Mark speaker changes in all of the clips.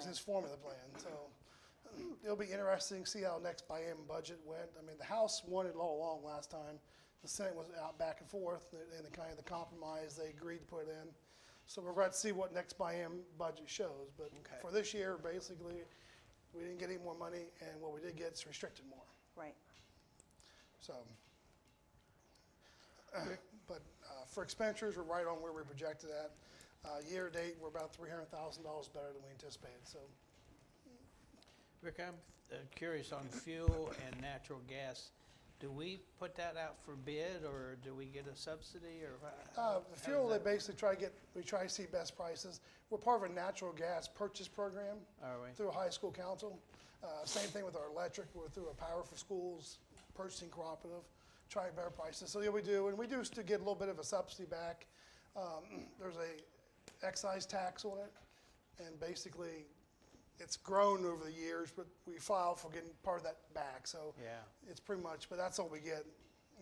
Speaker 1: licensed form of the plan, so it'll be interesting, to see how next biennium budget went. I mean, the House wanted it all along last time, the Senate was out back and forth, and- and the kind of the compromise they agreed to put in. So we're going to see what next biennium budget shows, but
Speaker 2: Okay.
Speaker 1: for this year, basically, we didn't get any more money, and what we did get is restricted more,
Speaker 3: Right.
Speaker 1: so. But uh, for expenditures, we're right on where we projected at. Uh, Year-to-date, we're about $300,000 better than we anticipated, so
Speaker 2: Rick, I'm uh, curious on fuel and natural gas. Do we put that out for bid, or do we get a subsidy, or? how-
Speaker 1: Uh,
Speaker 2: how
Speaker 1: The
Speaker 2: does
Speaker 1: fuel, they
Speaker 2: that-
Speaker 1: basically try to get, we try to see best prices. We're part of a natural gas purchase program.
Speaker 2: Are we?
Speaker 1: Through a high school council. Uh, Same thing with our electric, we're through a Power for Schools purchasing cooperative, trying better prices. So yeah, we do, and we do still get a little bit of a subsidy back. Um, There's a excise tax on it, and basically, it's grown over the years, but we file for getting part of that back, so.
Speaker 2: Yeah.
Speaker 1: It's pretty much, but that's all we get.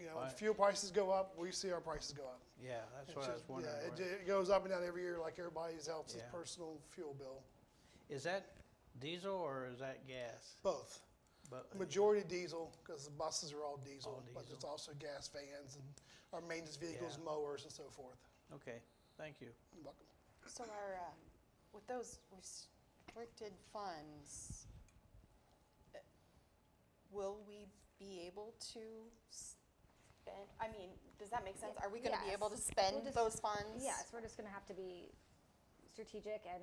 Speaker 1: You know, if
Speaker 2: Right.
Speaker 1: fuel prices go up, we see our prices go up.
Speaker 2: Yeah, that's
Speaker 1: It's
Speaker 2: what I was
Speaker 1: just- Yeah,
Speaker 2: wondering.
Speaker 1: it,
Speaker 2: where-
Speaker 1: ju- it goes up and down every year like everybody's else's
Speaker 2: Yeah.
Speaker 1: personal fuel bill.
Speaker 2: Is that diesel or is that gas?
Speaker 1: Both.
Speaker 2: But-
Speaker 1: Majority diesel, because the buses are all diesel,
Speaker 2: All
Speaker 1: but it's
Speaker 2: diesel.
Speaker 1: also gas vans and our maintenance vehicles,
Speaker 2: Yeah.
Speaker 1: mowers and so forth.
Speaker 2: Okay, thank you.
Speaker 1: You're welcome.
Speaker 3: So our, uh, with those restricted funds, uh, will we be able to spend, I mean, does that make sense? Are we gonna be able to
Speaker 4: Yes.
Speaker 3: spend
Speaker 4: We'll just-
Speaker 3: those funds?
Speaker 4: Yes, we're just gonna have to be strategic and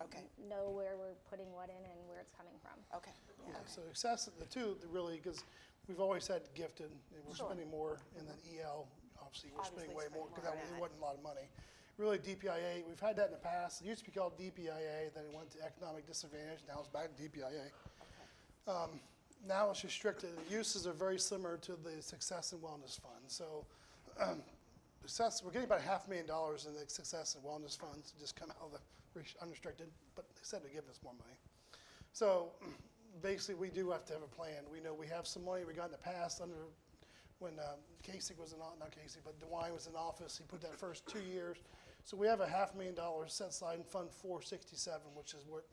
Speaker 3: Okay.
Speaker 4: know where we're putting what in and where it's coming from.
Speaker 3: Okay,
Speaker 1: Yeah, so excess, the two, that really, because we've always had gifted, and we're
Speaker 3: Sure.
Speaker 1: spending more, and then EL, obviously, we're spending
Speaker 3: Obviously
Speaker 1: way
Speaker 3: spending
Speaker 1: more, because
Speaker 3: more
Speaker 1: that
Speaker 3: on
Speaker 1: it
Speaker 3: that.
Speaker 1: wasn't a lot of money. Really, DPIA, we've had that in the past, it used to be called DPIA, then it went to economic disadvantage, now it's back to DPIA. Um, Now it's restricted, the uses are very similar to the Success and Wellness Fund, so um, success, we're getting about half a million dollars in the Success and Wellness Funds, just come out of the res- unrestricted, but they said they're giving us more money. So basically, we do have to have a plan. We know we have some money we got in the past under, when um, Kasich was in, o- not Kasich, but DeWine was in office, he put that first two years. So we have a half million dollars set aside in Fund 467, which is what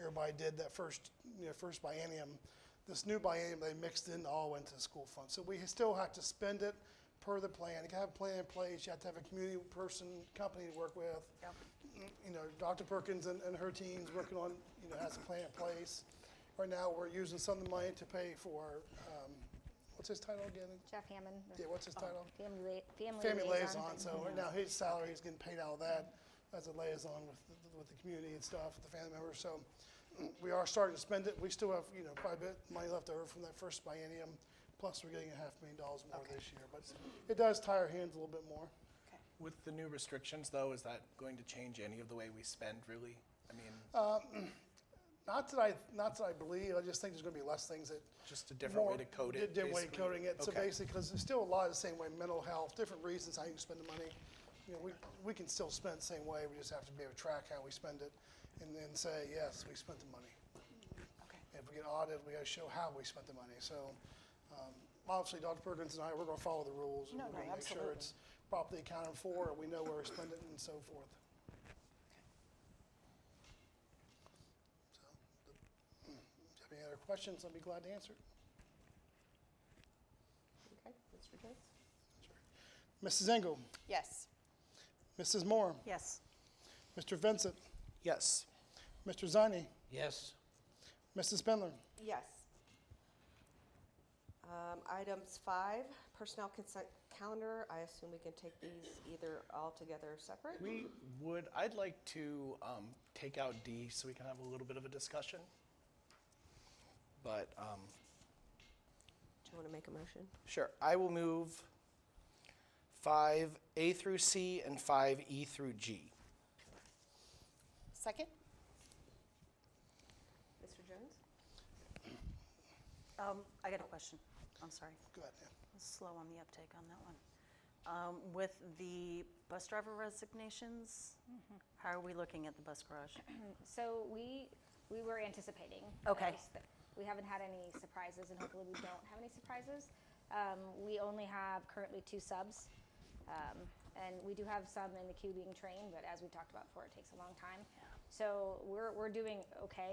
Speaker 1: everybody did that first, you know, first biennium. This new biennium, they mixed in, all went to the school fund. So we still have to spend it per the plan. You gotta have a plan in place, you have to have a community person, company to work with
Speaker 3: Yep.
Speaker 1: you know, Dr. Perkins and, and her team's working on, you know, has a plan in place. Right now, we're using some of the money to pay for, um, what's his title again?
Speaker 4: Jeff Hammond,
Speaker 1: Yeah,
Speaker 4: the
Speaker 1: what's his title?
Speaker 4: family la- family
Speaker 1: Family liaison,
Speaker 4: liaison.
Speaker 1: so right now his salary is getting paid out of that as a liaison with, the- with the community and stuff, with the family members, so we are starting to spend it. We still have, you know, quite a bit of money left over from that first biennium, plus we're getting a half million dollars more this year, but it does tie our hands a little bit more.
Speaker 3: okay.
Speaker 5: With the new restrictions, though, is that going to change any of the way we spend, really? I mean,
Speaker 1: Uh, Not that I, not that I believe, I just think there's gonna be less things that
Speaker 5: just a different way
Speaker 1: more
Speaker 5: to code
Speaker 1: di-
Speaker 5: it?
Speaker 1: Different way of
Speaker 5: basically?
Speaker 1: coding it, so
Speaker 5: Okay.
Speaker 1: basically, because it's still a lot of the same way, mental health, different reasons how you spend the money. You know, we, we can still spend the same way, we just have to be able to track how we spend it and then say, yes, we spent the money.
Speaker 3: Okay.
Speaker 1: If we get audited, we gotta show how we spent the money, so, um, obviously, Dr. Perkins and I, we're gonna follow the rules. and
Speaker 3: No,
Speaker 1: we're
Speaker 3: no,
Speaker 1: gonna make sure
Speaker 3: absolutely.
Speaker 1: it's properly accounted for, and we know where we spend it and so forth. So, the- if you have any other questions, I'd be glad to answer.
Speaker 6: Okay, Mr. Jones?
Speaker 1: Mrs. Engel?
Speaker 3: Yes.
Speaker 1: Mrs. Moore?
Speaker 3: Yes.
Speaker 1: Mr. Vincent?
Speaker 5: Yes.
Speaker 1: Mr. Zani?
Speaker 2: Yes,
Speaker 1: Mrs. Spindler?
Speaker 6: Yes. Um, Items five, personnel consent calendar. I assume we can take these either all together or separate?
Speaker 5: We would, I'd like to um, take out D so we can have a little bit of a discussion. But, um,
Speaker 6: Do you want to make a motion?
Speaker 5: sure, I will move 5A through C and 5E through G.
Speaker 3: Second?
Speaker 6: Mr. Jones?
Speaker 7: Um, I got a question. I'm sorry.
Speaker 1: Go ahead, Ann.
Speaker 7: I was slow on the uptake on that one. Um, with the bus driver resignations, how are we looking at the bus garage?
Speaker 4: So we, we were anticipating.
Speaker 7: Okay.
Speaker 4: those, but We haven't had any surprises and hopefully we don't have any surprises. Um, we only have currently two subs. Um, and we do have some in the queue being trained, but as we talked about before, it takes a long time. So we're, we're doing okay